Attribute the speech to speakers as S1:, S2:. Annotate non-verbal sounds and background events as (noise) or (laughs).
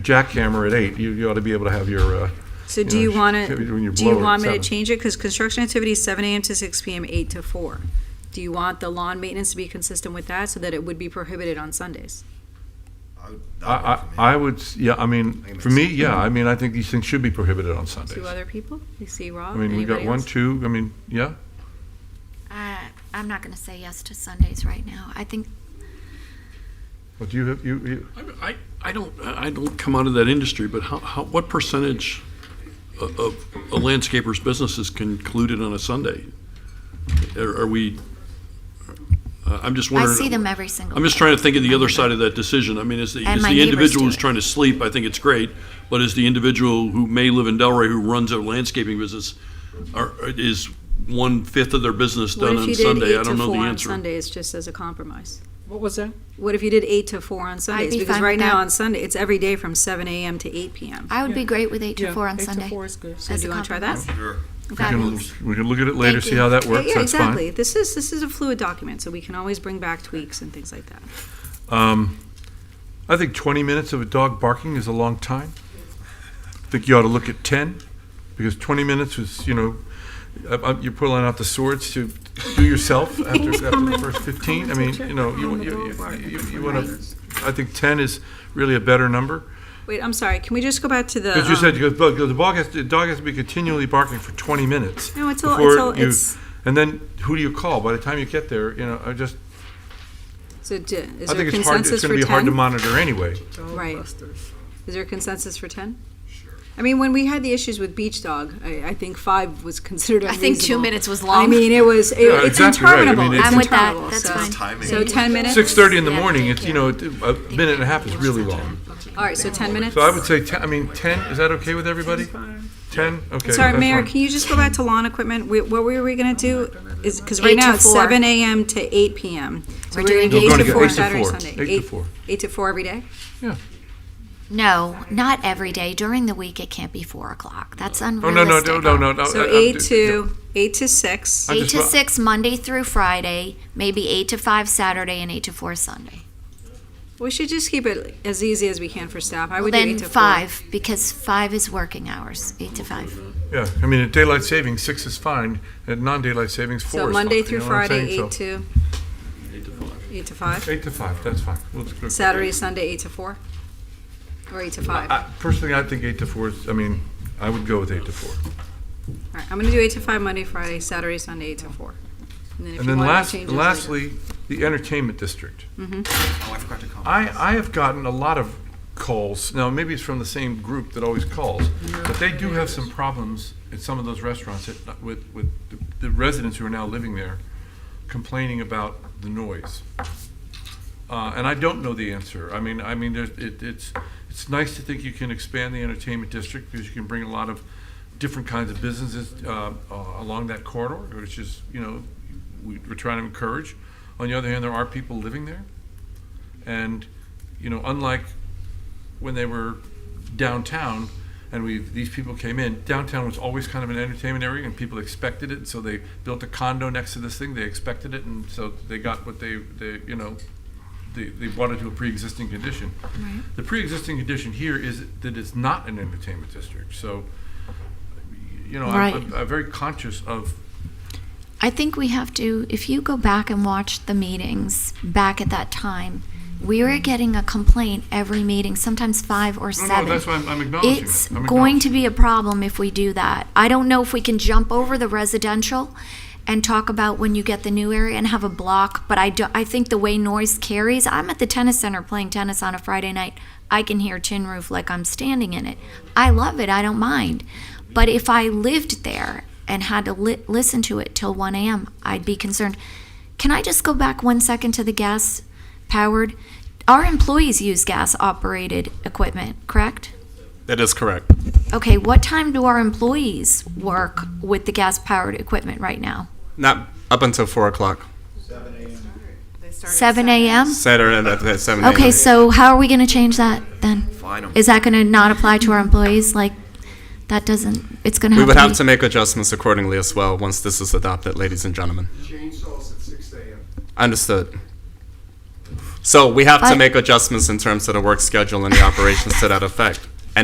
S1: jackhammer at eight, you, you ought to be able to have your, uh,
S2: So do you
S1: know,
S2: want to,
S1: activity when you
S2: do you
S1: blow it at
S2: want me to
S1: seven.
S2: change it? Because construction activity is seven AM to six PM, eight to four. Do you want the lawn maintenance to be consistent with that so that it would be prohibited on Sundays?
S1: I, I, I would, s- yeah, I mean, for me, yeah, I mean, I think these things should be prohibited on Sundays.
S2: Two other people? You see
S1: I
S2: Rob?
S1: mean, we got
S2: Anybody
S1: one,
S2: else?
S1: two, I mean, yeah,
S3: I, I'm not going to say yes to Sundays right now. I think
S1: but do you have, you, you,
S4: I- I, I don't, I don't come out of that industry, but how, how, what percentage o- of a landscaper's business is concluded on a Sunday? Are are we, uh, I'm just
S3: I
S4: wondering.
S3: see them every single.
S4: I'm just
S3: day.
S4: trying to think of the other side of that decision. I mean, is the,
S3: And
S4: is
S3: my
S4: the
S3: neighbors
S4: individual
S3: do
S4: who's
S3: it.
S4: trying to sleep, I think it's great, but is the individual who may live in Delray who runs a landscaping business, are, is one-fifth of their business
S2: What
S4: done
S2: if
S4: on
S2: you did
S4: Sunday?
S2: eight to
S4: I don't know
S2: four
S4: the
S2: on
S4: answer.
S2: Sundays, just as a compromise?
S5: What was that?
S2: What if you did eight to four on Sundays?
S3: be
S2: Because
S3: fine
S2: right
S3: with
S2: now
S3: that.
S2: on Sunday, it's every day from seven AM to eight PM.
S3: I would be great with eight to
S5: Yeah,
S3: four on
S5: eight to
S3: Sunday.
S5: four is good.
S2: So
S3: as
S2: do
S3: a
S2: you wanna try that?
S3: compromise.
S6: Sure.
S1: we
S3: That
S1: can,
S3: means-
S1: we can look at it later,
S3: Thank
S1: see
S3: you.
S1: how that
S2: Yeah,
S1: works,
S2: yeah,
S1: that's fine.
S2: exactly. This is, this is a fluid document, so we can always bring back tweaks and things like that.
S1: Um, I think 20 minutes of a dog barking is a long time. I think you ought to look at 10, because 20 minutes is, you know, uh, uh, you're pulling out the swords to do
S2: (laughs)
S1: yourself after, after the first 15. I mean, you know, you, you, you, you want to, I think 10 is really a better number.
S2: Wait, I'm sorry, can we just go back to the?
S1: Because you
S2: um,
S1: said, because the- the dog has, to- the dog has to be continually barking for 20 minutes.
S2: No, it's all-
S1: before
S2: it's all-
S1: you-
S2: it's-
S1: And then who do you call? By the time you get there, you know, I just,
S2: So d- is
S1: I
S2: there
S1: think it's hard,
S2: consensus
S1: it's
S2: for
S1: going to be hard to
S2: 10?
S1: monitor anyway.
S2: Right. Is there consensus for 10? I mean, when we had the issues with Beach Dog, I, I think five was considered
S3: I
S2: unreasonable.
S3: think two minutes was
S2: I
S3: long.
S2: mean, it was, it-
S1: Yeah,
S2: it's
S1: exactly right. I mean,
S2: interminable.
S1: it's-
S2: It's
S3: I'm with that.
S2: interminable,
S3: That's
S2: so-
S3: fine.
S6: Timing.
S2: So 10 minutes?
S1: Six thirty in the
S3: Yeah,
S1: morning, it's,
S3: thank
S1: you know, it- a minute and a half is really long.
S2: All right, so 10 minutes?
S1: So I would say, 10 I mean, ten, is that okay with everybody? Ten, okay.
S2: Sorry,
S1: that's
S2: Mayor,
S1: fine.
S2: can you just go back to lawn equipment? We- What were we going to do is, because right
S3: Eight to
S2: now it's
S3: four.
S2: 7 AM to 8 PM. So
S3: We're
S2: we're going
S3: doing
S2: to do
S3: You're
S1: gonna
S2: eight to
S1: get
S2: four
S1: eight to
S2: Saturday,
S1: four.
S2: Sunday.
S1: Eight to four.
S2: Eight to four every day?
S1: Yeah.
S3: No, not every day. During the week, it can't be four o'clock. That's
S1: Oh, no, no,
S3: unrealistic.
S1: no, no, no, no. I-
S2: So
S1: I'm
S2: eight
S1: d-
S2: to, eight to six.
S1: I
S3: Eight
S1: just
S3: to
S1: wa-
S3: six Monday through Friday, maybe eight to five Saturday, and eight to four Sunday.
S2: We should just keep it as easy as we can for staff. I would do
S3: then
S2: eight to four.
S3: five because five is working hours. Eight to five.
S1: Yeah, I mean, at daylight savings, six is fine, at non-daylight savings, four is
S2: So
S1: fine.
S2: Monday
S1: you
S2: through
S1: know what I'm
S2: Friday,
S1: saying?
S2: eight
S1: So
S2: to? Eight to five.
S1: Eight to five, that's fine. We'll just go-
S2: Saturday, Sunday, eight to four? Or eight to five? All
S1: I- Personally, I think eight to four is, I mean, I would go with eight to four.
S2: right, I'm gonna do eight to five Monday, Friday, Saturday, Sunday, eight to four. if
S1: And
S2: you
S1: then
S2: want to
S1: last,
S2: change it later. Mm-hmm.
S1: lastly, the entertainment district.
S6: Oh, I forgot to comment.
S1: I, I have gotten a lot of calls, now maybe it's from the same group that always calls, but they do have some problems at some of those restaurants that, with, with the- the residents who are now living there complaining about the noise. Uh, and I don't know the answer. I mean, I mean, there's, it, it's, it's nice to think you can expand the entertainment district because you can bring a lot of different kinds of businesses, uh, uh, along that corridor, which is, you know, we, we're trying to encourage. On the other hand, there are people living there. And, you know, unlike when they were downtown and we these people came in, downtown was always kind of an entertainment area and people expected it. So they built a condo next to this thing. They expected it. And so they got what they, they you know, they, they brought it to a pre existing condition. The pre existing condition here is that it's not an entertainment district. So, you know,
S3: Right.
S1: I'm, I'm, I'm very conscious of
S3: I think we have to, if you go back and watch the meetings back at that time, we were getting a complaint every meeting, sometimes five or
S1: No, no,
S3: seven.
S1: that's why I'm- I'm acknowledging
S3: It's
S1: that. I'm
S3: going to
S1: acknowledging
S3: be a problem if we do that. I don't know if we can jump over the residential and talk about when you get the new area and have a block, but I do, I think the way noise carries, I'm at the tennis center playing tennis on a Friday night. I can hear tin roof like I'm standing in it. I love it. I don't mind. But if I lived there and had to li- listen to it till 1 a.m., I'd be concerned. Can I just go back one second to the gas powered? Our employees use gas operated equipment, correct?
S7: That is correct.
S3: Okay, what time do our employees work with the gas powered equipment right now?
S7: Not up until four o'clock.
S3: 7 a.m.?
S7: Saturday at at seven.
S3: Okay,
S7: a.m.
S3: so how are we going to change that then?
S6: Fine 'em.
S3: Is that going to not apply to our employees? Like, that doesn't, it's going to
S7: we
S3: have
S7: would
S3: to
S7: have
S3: be-
S7: to make adjustments accordingly as well once this is adopted, ladies and gentlemen.
S8: chainsaws at six AM.
S7: Understood. So we have to
S3: But-
S7: make adjustments in terms of the work schedule and the operations to that effect.